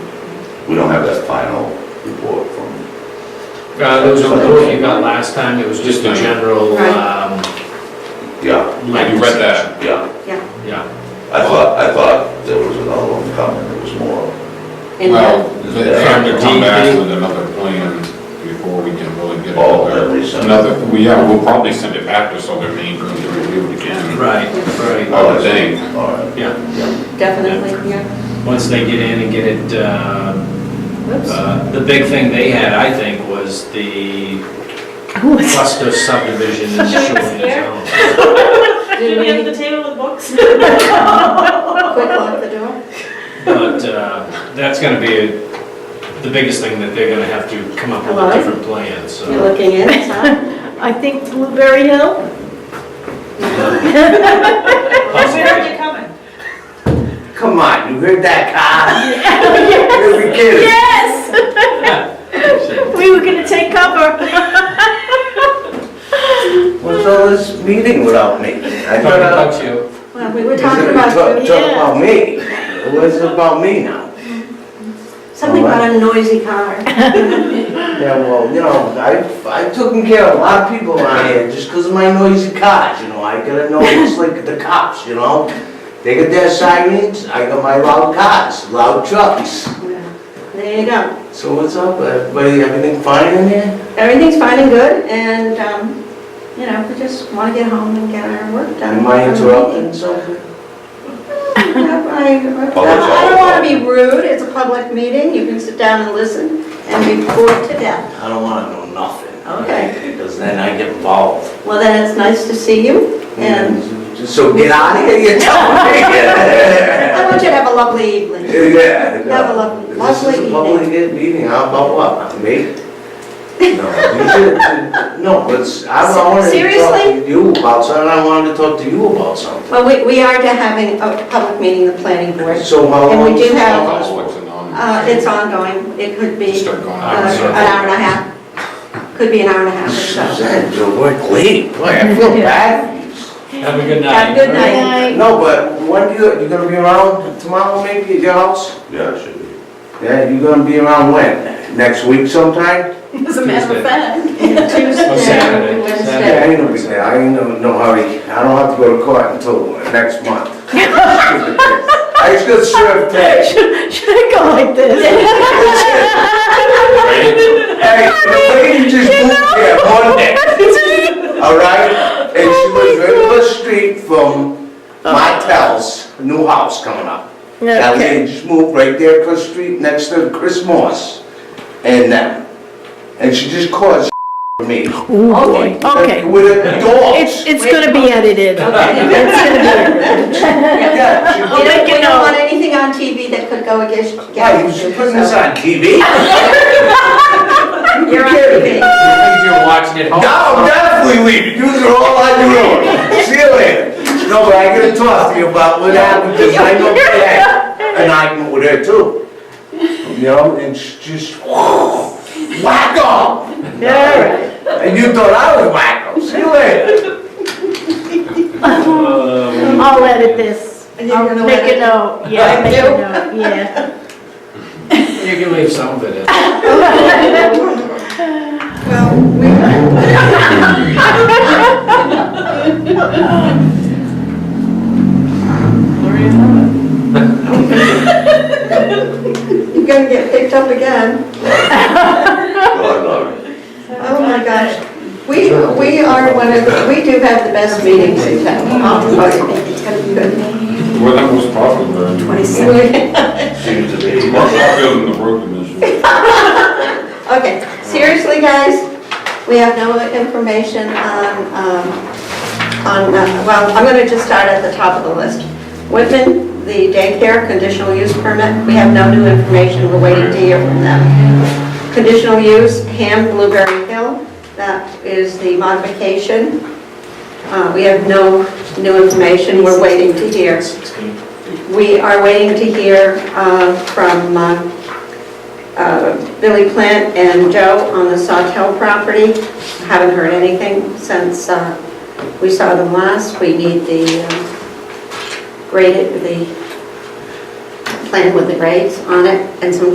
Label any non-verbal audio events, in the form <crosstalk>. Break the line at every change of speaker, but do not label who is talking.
We don't have that final report from
Uh, there was a report you got last time, it was just a general, um.
Yeah,
You read that?
yeah.
yeah.
Yeah,
I thought, I thought there was another one coming, there was more.
And
Well,
the-
they have to come back with another plan before we can really get
Oh,
another,
every summer.
another, well, yeah, we'll probably send it back to Southern Maine for them to review it again.
right, right,
I would think.
All right.
yeah.
definitely, yeah.
Once they get in and get it, uh, <laughs>
Whoops.
uh, the big thing they had, I think, was the cluster subdivision in Shoreland Zone.
Did
Should we have
we
the table with books?
quick lock the door?
But, uh, that's gonna be a- the biggest thing that they're gonna have to come up with a
Hello?
different plan,
You're
so.
looking in, Tom?
I think Blueberry Hill,
Where are they coming?
Come on, you heard
<laughs>
that, Kyle? Here we go.
yes, we were gonna take cover.
What's all this meeting without me? I thought I was
Talk to you.
Well, we were talking about,
Talk
you.
yeah.
about me. What's it about me now?
something about a noisy car.
Yeah, well, you know, I, I took care of a lot of people around here just 'cause of my noisy cars, you know? I gotta know, it's like the cops, you know? They got their sirens, I got my loud cars, loud trucks.
There you go.
So what's up, everybody, everything fine in here?
Everything's fine and good, and, um, you know, we just want to get home and get our work done.
Am I interrupting something?
I, I I don't want to be rude, it's a public meeting, you can sit down and listen and be bored to death.
I don't wanna know nothing.
Okay.
Because then I get involved.
Well, then it's nice to see you, and
So get out of here,
<laughs>
you're telling me.
I
Yeah.
want you to have a lovely evening. Have a
no.
lo-
This is
lovely
a
evening.
public meeting, how about
<laughs>
what, me? No, you should- no, but I wanted to talk
Seriously?
to you about something, I wanted to talk to you about something.
Well, we, we are to having a public meeting, of the planning board.
So how
And we
long
do
is
have-
it?
Conflicts and all.
Uh, it's ongoing, it could be
Start going
uh,
out.
an hour and a half, could be an hour and a half or so.
Suzanne, you're work late, boy, I
<laughs>
feel bad.
Have a good night.
Have a good night.
No, but when do you, you gonna be around tomorrow maybe at your house?
Yeah, it should be.
Yeah, you gonna be around when? Next week sometime?
As a matter of fact.
Oh, Saturday.
Tuesday,
Saturday.
Wednesday.
Yeah, I know he's there, I ain't no, no hurry, I don't have to go to court until next month. I just got served that.
<laughs> Should should I go like this?
Hey, the lady just moved here Monday, alright? And she was right up the street from Martell's new house coming up. That
Okay.
lady just moved right there across the street next to Chris Morse and them. And she just caused <laughs> for me.
Ooh, boy. <laughs> Okay,
With a dog.
it's, it's gonna be
Okay.
edited. It's gonna be edited.
Yeah, she
We don't, we don't want anything on TV that could go against.
Yeah, Oh, you should put this on TV.
You're on
If
TV.
you're watching it home.
No, definitely leave. You are all on your own. See you later. No, but I gotta talk to you about what happened, because I
<laughs>
know she had an argument with her too. You know, and she just, wacko!
Alright.
And you thought I was wacko. See you later.
Um,
I'll edit this.
And you're
I'll
gonna
make
let
a
it-
note, yeah,
I
make a
do?
note, yeah.
You can leave some of it in.
Well, we. You're gonna get picked up again.
Well, I know.
Oh my gosh. We, we are one of, the- we do have the best meetings in town. I'll tell you. It's gonna be good.
We're the most popular. in the world.
Seems to be.
More popular than the road commission.
Okay, seriously, guys, we have no information on, um, on, uh, well, I'm gonna just start at the top of the list. Whitman, the daycare conditional use permit, we have no new information, we're waiting to hear from them. Conditional use, Ham Blueberry Hill, that is the modification. Uh, We have no new information, we're waiting to hear. We are waiting to hear uh, from uh, uh, Billy Plant and Joe on the Sawtell property. Haven't heard anything since uh, we saw them last. We need the uh, um, graded, the plan with the grades on it and some